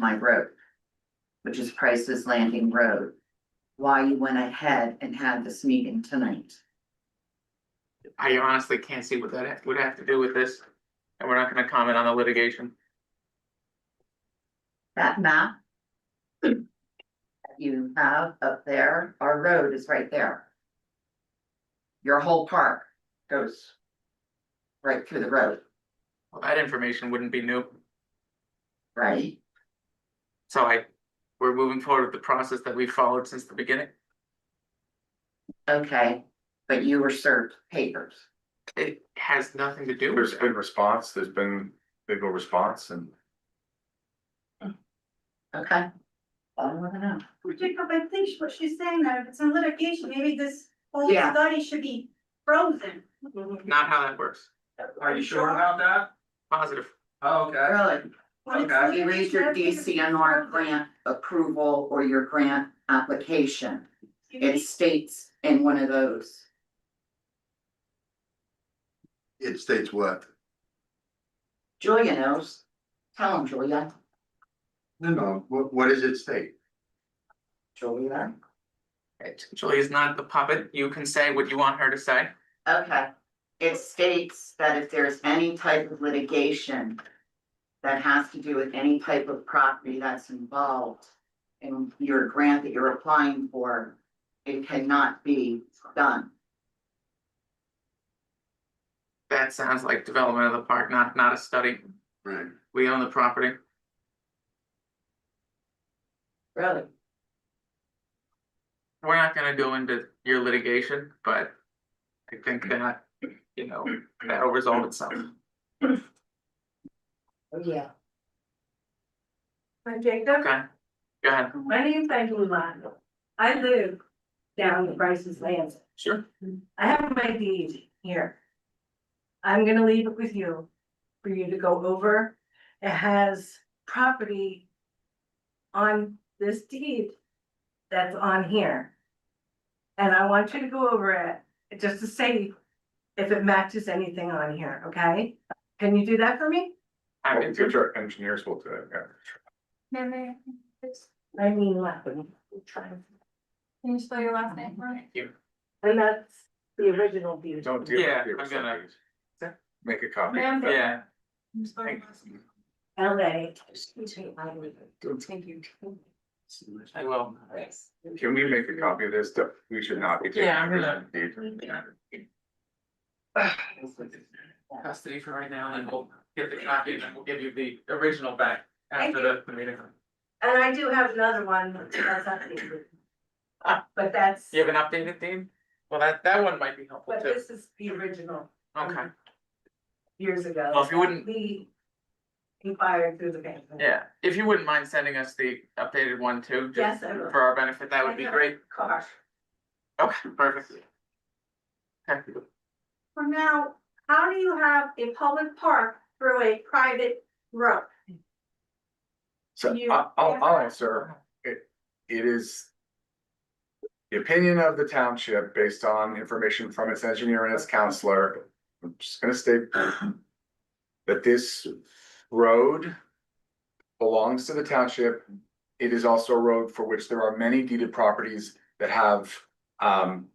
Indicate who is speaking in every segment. Speaker 1: my road. Which is Price's Landing Road. Why you went ahead and had this meeting tonight.
Speaker 2: I honestly can't see what that ha- would have to do with this, and we're not gonna comment on the litigation.
Speaker 1: That map. That you have up there, our road is right there. Your whole park goes. Right through the road,
Speaker 2: Well, That information wouldn't be new,
Speaker 1: right?
Speaker 2: so I, we're moving forward with the process that we've followed since the beginning.
Speaker 1: Okay, but you were served papers.
Speaker 2: It has nothing to do
Speaker 3: There's
Speaker 2: with
Speaker 3: been
Speaker 2: it.
Speaker 3: response, there's been big old response and
Speaker 1: Okay. I don't wanna know.
Speaker 4: Jacob, I think what she's saying that if it's in litigation, maybe this whole
Speaker 1: Yeah.
Speaker 4: study should be frozen.
Speaker 2: Not how that works.
Speaker 5: Are you sure about that?
Speaker 2: Positive.
Speaker 5: Oh, Okay,
Speaker 1: Really,
Speaker 4: When it's
Speaker 5: Okay.
Speaker 1: you read your
Speaker 4: litigation,
Speaker 1: DCNR
Speaker 4: everything should be frozen.
Speaker 1: grant approval or your grant application.
Speaker 4: You
Speaker 1: It
Speaker 4: need-
Speaker 1: states in one of those,
Speaker 6: It states what?
Speaker 1: Julia knows, tell him Julia,
Speaker 6: No, no, Uh, what, what does it state?
Speaker 1: Julia,
Speaker 2: Right. Julie's not the puppet. You can say what you want her to say.
Speaker 1: okay. It states that if there's any type of litigation. That has to do with any type of property that's involved in your grant that you're applying for. It cannot be done,
Speaker 2: That sounds like development of the park, not, not a study.
Speaker 6: Right.
Speaker 2: We own the property.
Speaker 1: really,
Speaker 2: We're not gonna go into your litigation, but I think that, you know, that'll resolve itself.
Speaker 1: yeah.
Speaker 7: Hi Jacob,
Speaker 2: Okay, go ahead.
Speaker 7: my name's Eileen Lotto. I live down in Bryce's Land.
Speaker 2: Sure.
Speaker 7: I have my deed here. I'm gonna leave it with you for you to go over. It has property on this deed that's on here. And I want you to go over it, just to say if it matches anything on here, okay? Can you do that for me?
Speaker 2: Happy
Speaker 3: Well,
Speaker 2: to.
Speaker 3: which our engineers will do it, yeah.
Speaker 4: May- may-
Speaker 7: Eileen Lotto.
Speaker 4: Can you spell your last name for me?
Speaker 7: And that's the original deed.
Speaker 3: Don't deal with
Speaker 2: Yeah,
Speaker 3: your
Speaker 2: I'm gonna-
Speaker 3: percentages. Make a copy.
Speaker 4: Ma'am?
Speaker 2: Yeah.
Speaker 4: Can you spell your last name?
Speaker 7: LA.
Speaker 2: I will.
Speaker 3: Can we make a copy of this? That We should not be. taking
Speaker 2: Yeah, I'm gonna-
Speaker 3: percentages.
Speaker 2: Custody for right now, and we'll get the copy, and then we'll give you the original back after the- the meeting.
Speaker 7: And I do have another one that's updated. But that's,
Speaker 2: You have an updated theme? Well, that, that one might be helpful
Speaker 7: but
Speaker 2: too.
Speaker 7: this is the original
Speaker 2: Okay,
Speaker 7: years ago.
Speaker 2: well, if you wouldn't,
Speaker 7: We inquired through the bank.
Speaker 2: yeah, if you wouldn't mind sending us the updated one too, just
Speaker 7: Yes, I will.
Speaker 2: for our benefit, that would be great.
Speaker 7: Car.
Speaker 2: Okay, perfect. Okay,
Speaker 4: For now, how do you have a public park through a private road?
Speaker 3: So
Speaker 4: You-
Speaker 3: I- I'll, I'll answer, it, it is. The opinion of the township based on information from its engineer and its counselor, I'm just gonna state. That this road belongs to the township. It is also a road for which there are many deeded properties that have, um.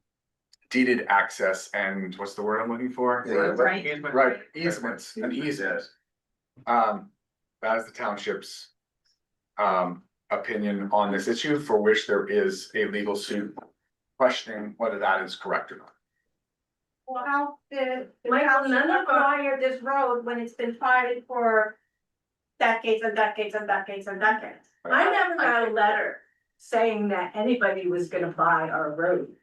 Speaker 3: Deeded access and what's the word I'm looking for?
Speaker 6: Right.
Speaker 2: Easement.
Speaker 3: Right, easements, an easement. Um, that is the township's. Um, opinion on this issue for which there is a legal suit questioning whether that is correct or not.
Speaker 4: Well, how did the
Speaker 7: Michael,
Speaker 4: township
Speaker 7: none of our-
Speaker 4: acquire this road when it's been private for decades and decades and decades and decades?
Speaker 7: I never got a letter saying that anybody was gonna buy our road.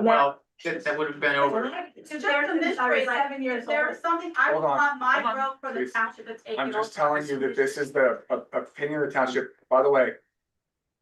Speaker 2: well, that, that would have been over.
Speaker 4: It's just a mystery, seven years There was something, I would
Speaker 3: Hold on,
Speaker 4: want my
Speaker 2: hold on,
Speaker 4: road for the
Speaker 3: please.
Speaker 4: township to take it over.
Speaker 3: I'm just telling you that this is the o- opinion of the township, by the way.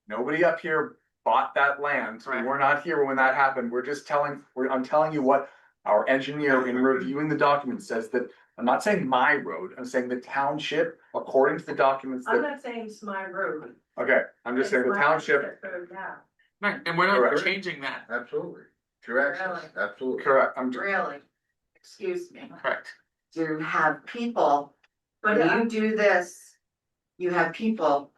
Speaker 3: Nobody up here bought that land, we
Speaker 2: Right.
Speaker 3: were not here when that happened, we're just telling, we're, I'm telling you what. Our engineer in reviewing the document says that, I'm not saying my road, I'm saying the township, according to the documents
Speaker 7: I'm
Speaker 3: that,
Speaker 7: not saying it's my road.
Speaker 3: okay, I'm just saying the
Speaker 7: It's my
Speaker 3: township.
Speaker 7: road now.
Speaker 2: Right, and we're not
Speaker 3: Correct.
Speaker 2: changing that,
Speaker 6: Absolutely. Your access, absolutely.
Speaker 3: Correct, I'm,
Speaker 1: Really? Excuse me.
Speaker 2: correct?
Speaker 1: To have people, when
Speaker 7: But
Speaker 1: you do this, you have people